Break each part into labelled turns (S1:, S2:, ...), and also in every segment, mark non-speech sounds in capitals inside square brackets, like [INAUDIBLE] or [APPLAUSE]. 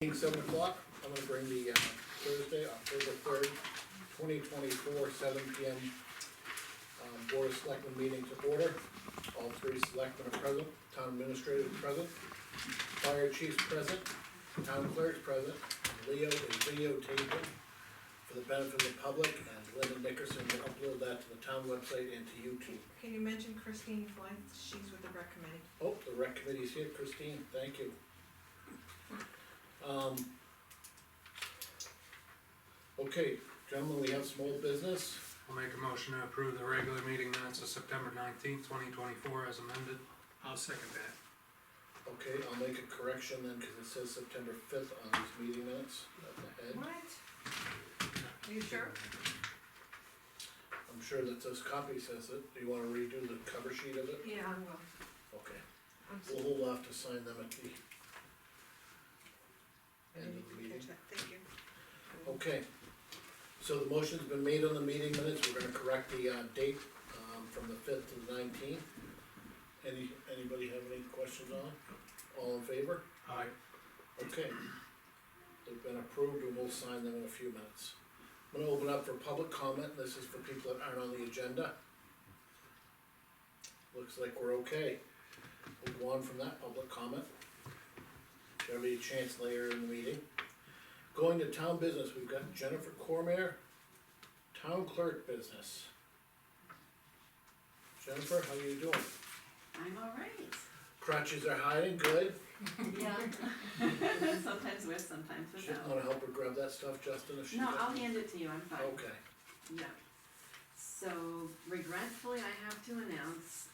S1: Being seven o'clock, I'm gonna bring the uh, Thursday, October third, twenty twenty-four, seven P M. um, Board of Selectmen meeting to order. All three selectmen are present, town administrator is present, fire chief's present, town clerk's present. and Leo is videotaping for the benefit of the public, and Linda Nickerson will upload that to the town website and to YouTube.
S2: Can you mention Christine Flynn? She's with the rec committee.
S1: Oh, the rec committee's here, Christine, thank you. Um. Okay, gentlemen, we have some old business,
S3: I'll make a motion to approve the regular meeting minutes of September nineteenth, twenty twenty-four as amended.
S4: I'll second that.
S1: okay, I'll make a correction then, cause it says September fifth on these meeting minutes, at the head.
S2: What? Are you sure?
S1: I'm sure that this copy says it, do you wanna redo the cover sheet of it?
S2: Yeah, I will.
S1: Okay,
S2: I'm sorry.
S1: we'll hold off to sign them at the
S2: I
S1: end
S2: didn't
S1: of the
S2: even
S1: meeting.
S2: catch that. Thank you.
S1: Okay, so the motion's been made on the meeting minutes, we're gonna correct the, uh, date, um, from the fifth to the nineteenth. Any, anybody have any questions on it? All in favor?
S3: Aye.
S1: Okay. They've been approved and we'll sign them in a few minutes. I'm gonna open up for public comment, this is for people that aren't on the agenda. Looks like we're okay. We'll go on from that public comment. There'll be a chance later in the meeting. Going to town business, we've got Jennifer Cormier, town clerk business. Jennifer, how you doing?
S5: I'm all right.
S1: Crutches are hiding, good.
S5: Yeah. [LAUGHS] sometimes with, sometimes
S1: She's
S5: without.
S1: gonna help her grab that stuff, Justin, if she
S5: No,
S1: can.
S5: I'll hand it to you, I'm fine.
S1: Okay.
S5: Yeah. So regretfully, I have to announce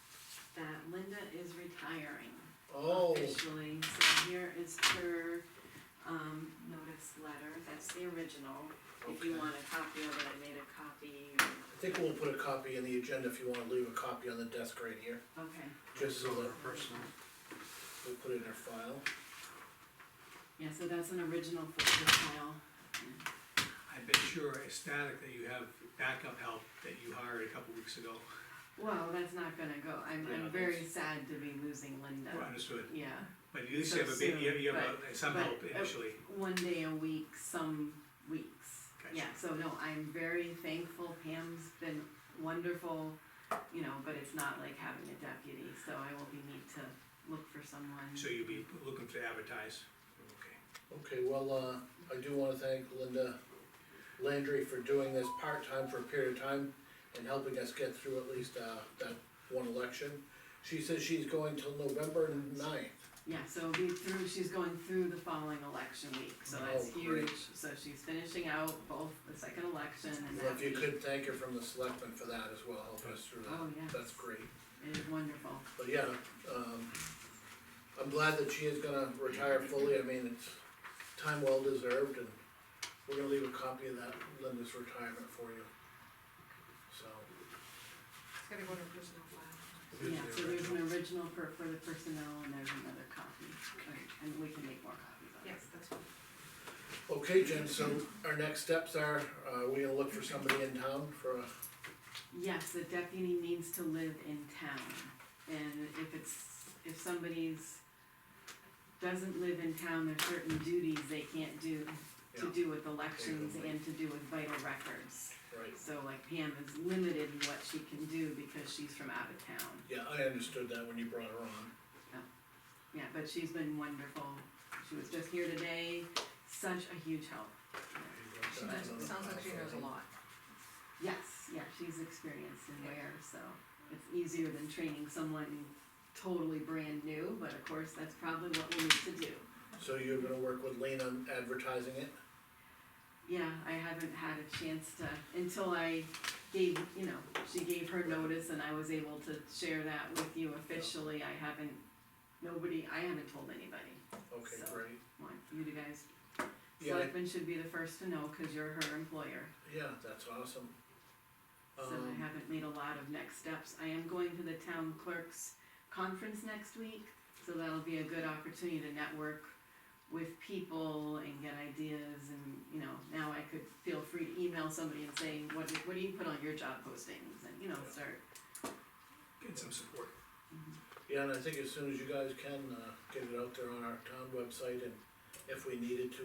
S5: that Linda is retiring
S1: Oh,
S5: officially. So here is her, um, notice letter, that's the original. If you
S1: Okay.
S5: want a copy of it, I made a copy.
S1: I think we'll put a copy in the agenda if you wanna leave a copy on the desk right here,
S5: Okay,
S1: just so that
S3: Personal.
S1: we put it in our file.
S5: yeah, so that's an original for the file.
S4: I bet you're ecstatic that you have backup help that you hired a couple weeks ago.
S5: Well, that's not gonna go, I'm,
S4: Yeah,
S5: I'm very sad to be losing Linda.
S4: Well, Understood,
S5: Yeah.
S4: but at least
S5: So
S4: you have a bit, you have- you have a- some
S5: but-
S4: help
S5: but-
S4: initially.
S5: one day a week, some weeks.
S4: Gotcha.
S5: Yeah, so no, I'm very thankful, Pam's been wonderful, you know, but it's not like having a deputy, so I will be need to look for someone.
S4: So you'll be looking to advertise, okay.
S1: Okay, well, uh, I do wanna thank Linda Landry for doing this part-time for a period of time and helping us get through at least, uh, that one election. She says she's going till November ninth.
S5: Yeah, so it'll be through, she's going through the following election week, so that's
S1: Oh, great.
S5: huge, so she's finishing out both the second election and
S1: Well,
S5: that
S1: if you
S5: week,
S1: could thank her from the selectmen for that as well, help us through that.
S5: Oh, yes.
S1: That's great.
S5: it is wonderful.
S1: But yeah, um, I'm glad that she is gonna retire fully, I mean, it's time well deserved, and we're gonna leave a copy of that Linda's retirement for you. So,
S2: It's gotta go to personal file.
S1: Here's
S5: Yeah,
S1: the
S5: so there's an original for, for the personnel and there's another copy, and we can make more copies of it.
S2: Yes, that's fine.
S1: okay, Jen, so our next steps are, uh, we gonna look for somebody in town for a,
S5: Yes, the deputy needs to live in town, and if it's, if somebody's, doesn't live in town, there's certain duties they can't do to
S1: Yeah.
S5: do with elections
S1: Totally.
S5: and to do with vital records.
S1: right,
S5: So like Pam is limited in what she can do because she's from out of town.
S1: yeah, I understood that when you brought her on.
S5: Yeah, but she's been wonderful, she was just here today, such a huge help.
S2: She knows, it sounds like she knows a lot.
S5: Yes, yeah, she's experienced in wear, so it's easier than training someone totally brand new, but of course, that's probably what we'll need to do.
S1: So you're gonna work with Lean on advertising it?
S5: Yeah, I haven't had a chance to, until I gave, you know, she gave her notice and I was able to share that with you officially, I haven't, nobody, I haven't told anybody.
S1: Okay,
S5: So-
S1: great,
S5: Want you to guys,
S1: Yeah.
S5: selectmen should be the first to know, cause you're her employer.
S1: yeah, that's awesome.
S5: So I
S1: Um,
S5: haven't made a lot of next steps. I am going to the town clerk's conference next week, so that'll be a good opportunity to network with people and get ideas and, you know, now I could feel free to email somebody and say, what, do- what do you put on your job postings? And, you know,
S1: Yeah.
S5: start,
S4: Get some support.
S1: Yeah, and I think as soon as you guys can, uh, get it out there on our town website and if we needed to